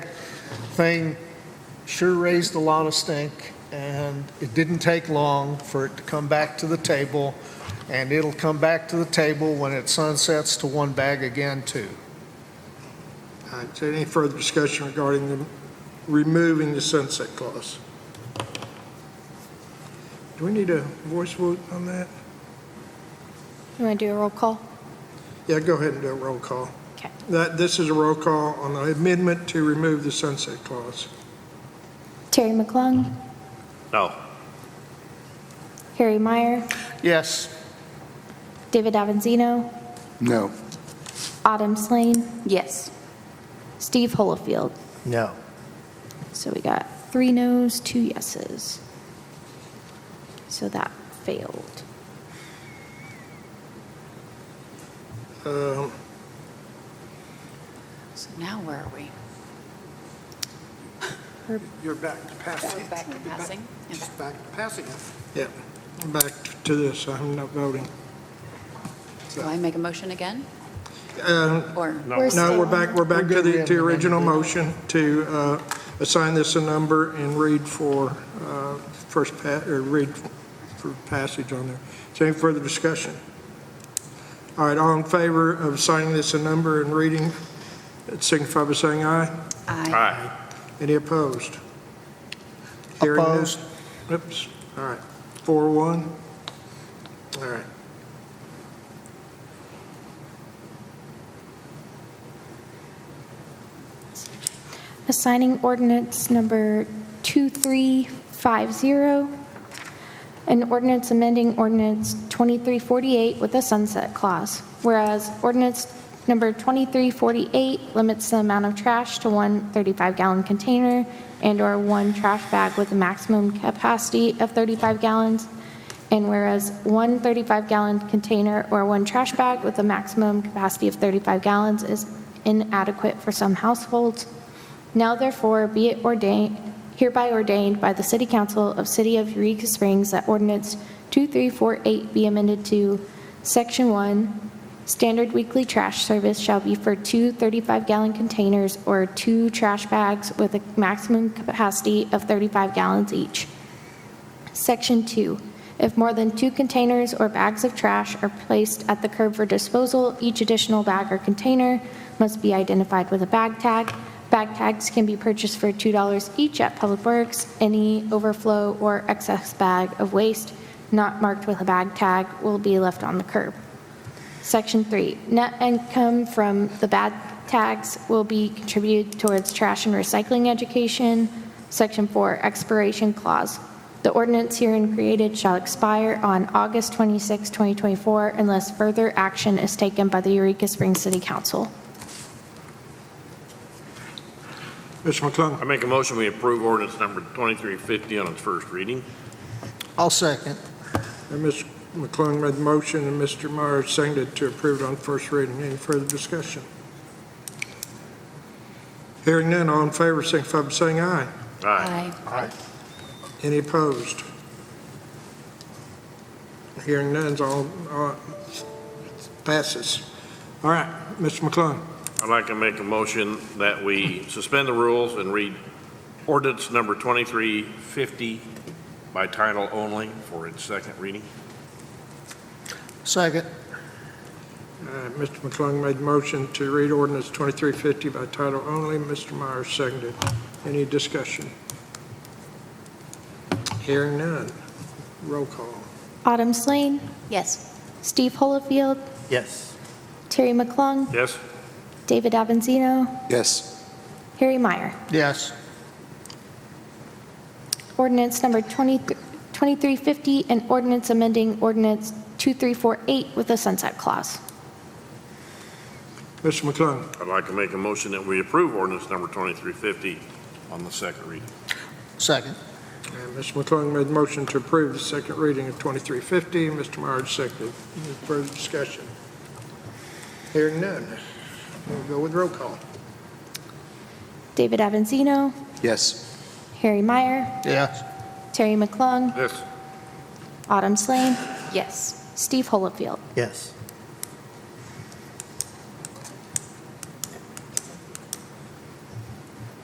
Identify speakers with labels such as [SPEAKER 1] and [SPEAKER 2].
[SPEAKER 1] thing sure raised a lot of stink, and it didn't take long for it to come back to the table, and it'll come back to the table when it sunsets to one bag again, too.
[SPEAKER 2] All right, so any further discussion regarding the- removing the sunset clause? Do we need a voice vote on that?
[SPEAKER 3] You want to do a roll call?
[SPEAKER 2] Yeah, go ahead and do a roll call.
[SPEAKER 3] Okay.
[SPEAKER 2] That, this is a roll call on the amendment to remove the sunset clause.
[SPEAKER 3] Terry McClung,
[SPEAKER 4] No.
[SPEAKER 3] Harry Meyer,
[SPEAKER 1] Yes.
[SPEAKER 3] David Avanzino,
[SPEAKER 5] No.
[SPEAKER 3] Autumn Slane,
[SPEAKER 6] Yes.
[SPEAKER 3] Steve Holofield.
[SPEAKER 1] No.
[SPEAKER 3] So we got three noes, two yeses. So that failed.
[SPEAKER 2] Um,
[SPEAKER 6] So now where are we?
[SPEAKER 7] You're back to passing.
[SPEAKER 6] We're back to passing?
[SPEAKER 7] Just back to passing it.
[SPEAKER 2] Yeah, back to this, I'm not voting.
[SPEAKER 6] Do I make a motion again?
[SPEAKER 2] Um,
[SPEAKER 6] Or?
[SPEAKER 2] No,
[SPEAKER 3] still-
[SPEAKER 2] we're back, we're back to
[SPEAKER 1] We're good, we
[SPEAKER 2] the,
[SPEAKER 1] haven't
[SPEAKER 2] to
[SPEAKER 1] amended
[SPEAKER 2] original
[SPEAKER 1] it.
[SPEAKER 2] motion to uh, assign this a number and read for uh, first, pa- or read for passage on there. Is there any further discussion? All right, all in favor of assigning this a number and reading, signify by saying aye.
[SPEAKER 6] Aye.
[SPEAKER 4] Aye.
[SPEAKER 2] Any opposed? Hearing none.
[SPEAKER 1] Opposed.
[SPEAKER 2] Oops, all right, four, one. All right.
[SPEAKER 3] Assigning ordinance number 2350, an ordinance amending ordinance 2348 with a sunset clause, whereas ordinance number 2348 limits the amount of trash to one 35-gallon container and/or one trash bag with a maximum capacity of 35 gallons, and whereas one 35-gallon container or one trash bag with a maximum capacity of 35 gallons is inadequate for some households, now therefore be it ordained, hereby ordained by the City Council of City of Eureka Springs that ordinance 2348 be amended to Section 1, standard weekly trash service shall be for two 35-gallon containers or two trash bags with a maximum capacity of 35 gallons each. Section 2, if more than two containers or bags of trash are placed at the curb for disposal, each additional bag or container must be identified with a bag tag. Bag tags can be purchased for $2 each at Public Works. Any overflow or excess bag of waste not marked with a bag tag will be left on the curb. Section 3, net income from the bad tax will be contributed towards trash and recycling education. Section 4, expiration clause. The ordinance herein created shall expire on August 26, 2024, unless further action is taken by the Eureka Springs City Council.
[SPEAKER 2] Mr. McClung.
[SPEAKER 4] I make a motion, we approve ordinance number 2350 on its first reading.
[SPEAKER 1] I'll second.
[SPEAKER 2] And Ms. McClung made the motion, and Mr. Meyer seconded to approve it on first reading. Any further discussion? Hearing none, all in favor, signify by saying aye.
[SPEAKER 4] Aye.
[SPEAKER 2] Any opposed? Hearing none, all, all passes. All right, Mr. McClung.
[SPEAKER 4] I'd like to make a motion that we suspend the rules and read ordinance number 2350 by title only for its second reading.
[SPEAKER 1] Second.
[SPEAKER 2] Uh, Mr. McClung made the motion to read ordinance 2350 by title only. Mr. Meyer seconded. Any discussion? Hearing none. Roll call.
[SPEAKER 3] Autumn Slane,
[SPEAKER 6] Yes.
[SPEAKER 3] Steve Holofield,
[SPEAKER 7] Yes.
[SPEAKER 3] Terry McClung,
[SPEAKER 4] Yes?
[SPEAKER 3] David Avanzino,
[SPEAKER 5] Yes.
[SPEAKER 3] Harry Meyer.
[SPEAKER 1] Yes.
[SPEAKER 3] Ordinance number 20 2350, an ordinance amending ordinance 2348 with a sunset clause.
[SPEAKER 2] Mr. McClung.
[SPEAKER 4] I'd like to make a motion that we approve ordinance number 2350 on the second reading.
[SPEAKER 1] Second.
[SPEAKER 2] And Mr. McClung made the motion to approve the second reading of 2350. Mr. Myers seconded. Any further discussion? Hearing none. We'll go with roll call.
[SPEAKER 3] David Avanzino,
[SPEAKER 5] Yes.
[SPEAKER 3] Harry Meyer,
[SPEAKER 1] Yes.
[SPEAKER 3] Terry McClung,
[SPEAKER 4] Yes.
[SPEAKER 3] Autumn Slane,
[SPEAKER 6] Yes.
[SPEAKER 3] Steve Holofield.
[SPEAKER 7] Yes.